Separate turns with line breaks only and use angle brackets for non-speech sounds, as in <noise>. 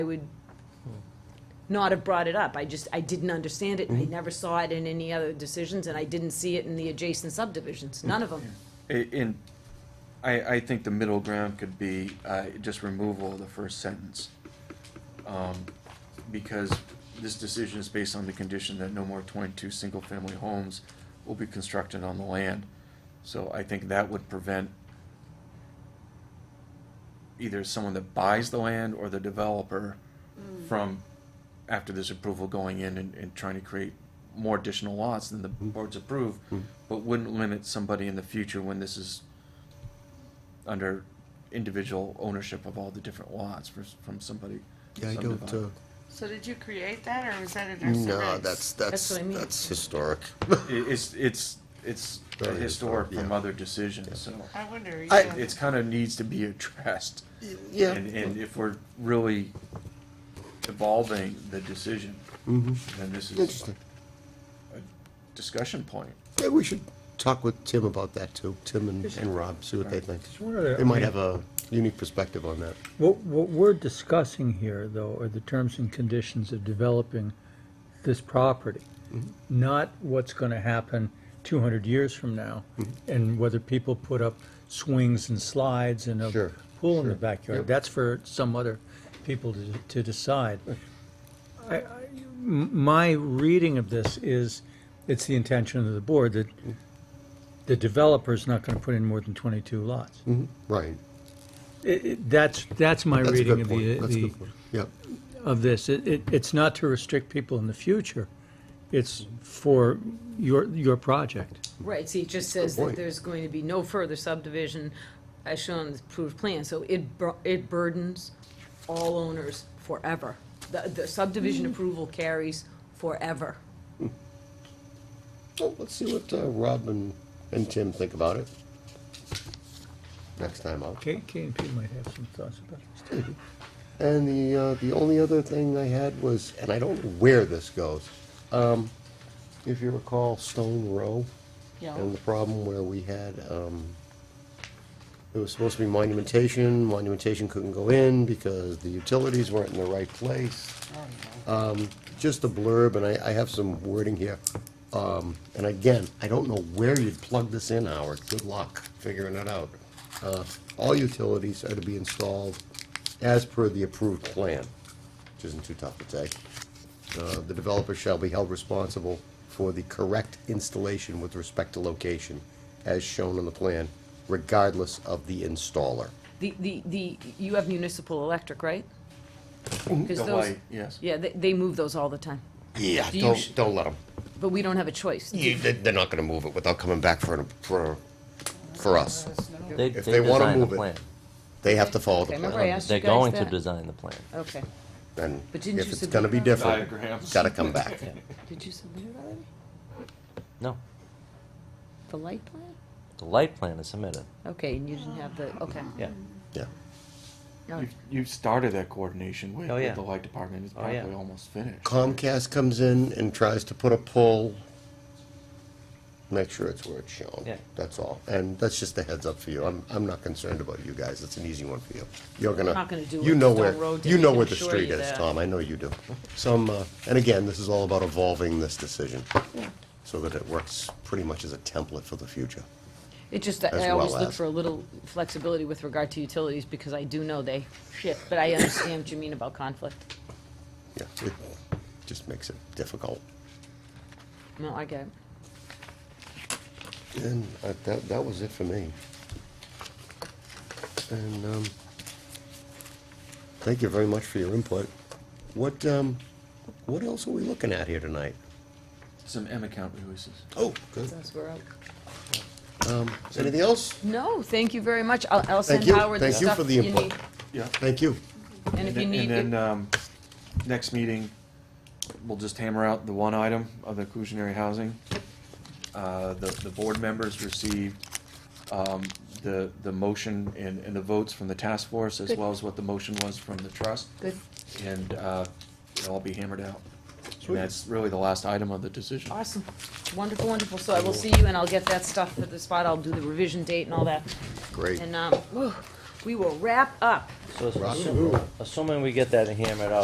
I would not have brought it up. I just, I didn't understand it, and
Mm-hmm.
I never saw it in any other decisions, and I didn't see it in the adjacent
Mm.
subdivisions, none of them.
I- In, I, I think the middle ground could be, uh, just removal of the first sentence. Um, Because this decision is based on the condition that no more twenty-two single-family homes will be constructed on the land. So I think that would prevent either someone that buys the land or the developer from, after this approval, going in and, and trying to create more additional lots than the
Mm-hmm.
board's approved, but wouldn't limit somebody in the future when this is under individual ownership of all the different lots for, from somebody.
Yeah, I don't, <coughs>
subdividing.
uh,
So did you create that, or was that in our
no,
surveys?
that's,
That's
that's,
what I mean.
that's historic.
It- It's, it's, it's
Very
historic
historic,
from
yeah.
other decisions, so
I wonder,
I-
yeah.
it's kind of needs to be addressed.
Yeah,
And, and if we're really evolving the decision, then this is
Mm-hmm. interesting.
a discussion point.
Yeah, we should talk with Tim about that too, Tim and, and Rob, see what they think.
Just wondered,
They
I
might
mean,
have a unique perspective on that.
What, what we're discussing here, though, are the terms and conditions of developing this property,
Mm-hmm.
not what's going to happen 200 years from now,
Mm-hmm.
and whether people put up swings and slides and a
Sure,
pool in the
sure. Yep.
backyard. That's for some other people to, to decide. I- I- m- My reading of this is, it's the intention of the board that
Mm-hmm.
the developer's not going to put in more than 22 lots.
Right.
It- it- That's, that's my
That's a
reading
good
of the,
point. That's a
the-
good point. Yep.
of this. It, it- it's not to restrict people in the future. It's for your, your project.
Right, see, it just says
Good
that
point.
there's going to be no further subdivision as shown on the approved plan, so it, bur- it burdens all owners forever. The, the subdivision
Mm-hmm.
approval carries forever.
Well, let's see what, uh, Rob and, and Tim think about it. Next time out.
K, K and P might have some thoughts about this. too.
And the, uh, the only other thing I had was, and I don't know where this goes, um, if you recall Stone Row?
Yeah.
And the problem where we had, um, it was supposed to be monumentation, monumentation couldn't go in because the utilities weren't in the right place. Um, just a blurb, and I, I have some wording here. Um, and again, I don't know where you'd plug this in, Howard. Good luck figuring it out. Uh, all utilities are to be installed as per the approved plan, which isn't too tough to take. Uh, The developer shall be held responsible for the correct installation with respect to location as shown on the plan, regardless of the installer.
The, the, the, you have municipal electric, right?
Mm-hmm.
'Cause
The
those-
light, yes.
Yeah, they, they move those all the time,
Yeah,
Do you sh-
don't, don't let them.
but we don't have a choice.
They're not gonna move it without coming back for, an- for, for us.
They,
If
they
they wanna
design the
move it,
plan. Um,
They have to follow
Okay,
the
remember I
plan.
asked you
They're
guys
going to
that?
design the plan.
Okay,
And
But didn't
if
you
it's
submit
gonna be
that?
different,
Diagrams.
gotta come back.
did you submit it already?
No,
The light plan?
the light plan is submitted.
Okay, and you didn't have the, okay.
Yeah.
Yeah.
All right.
You've, you've started that coordination with,
Oh,
with
yeah.
the light department, it's
Oh, yeah.
probably almost finished.
Comcast comes in and tries to put a pole, make sure it's where it's shown.
Yeah.
That's all. And that's just a heads up for you. I'm, I'm not concerned about you guys. It's an easy one for you. You're gonna.
Not gonna do
You
what
know
Stone
where,
Road did,
you
I
know
can
where the
assure
street
you
is,
that.
Tom. I know you do. Some, uh, and again, this is all about evolving this decision so that it works pretty much as a template for the future.
It just, I
As
always
well
look
as-
for a little flexibility with regard to utilities, because I do know they shit, but I understand what you mean about conflict.
Yeah, it just makes it difficult.
No, I get it.
And uh, that, that was it for me. And, um, thank you very much for your input. What, um, what else are we looking at here tonight?
Some M account releases.
Oh, good.
That's where I'll-
Um, anything else?
No, thank you very much. I'll, I'll send
you.
Howard the
Thank you
stuff
for the
you
input.
need.
Yeah.
Thank you.
And if you
And then-
need,
And then,
it-
um, next meeting, we'll just hammer out the one item of the inclusionary housing. Uh, the, the board members received, um, the, the motion and, and the votes from the task force, as
Good.
well as what the motion was from the trust.
Good.
And, uh, it'll all be hammered out.
Sweet.
And that's really the last item of the decision.
awesome. Wonderful, wonderful. So I will see you and uh, I'll get that stuff for the spot. I'll do the revision date and all that.
Great.
And, um, whew, We will wrap up.
So
Rock and
assuming,
roll.
assuming we get that hammered out.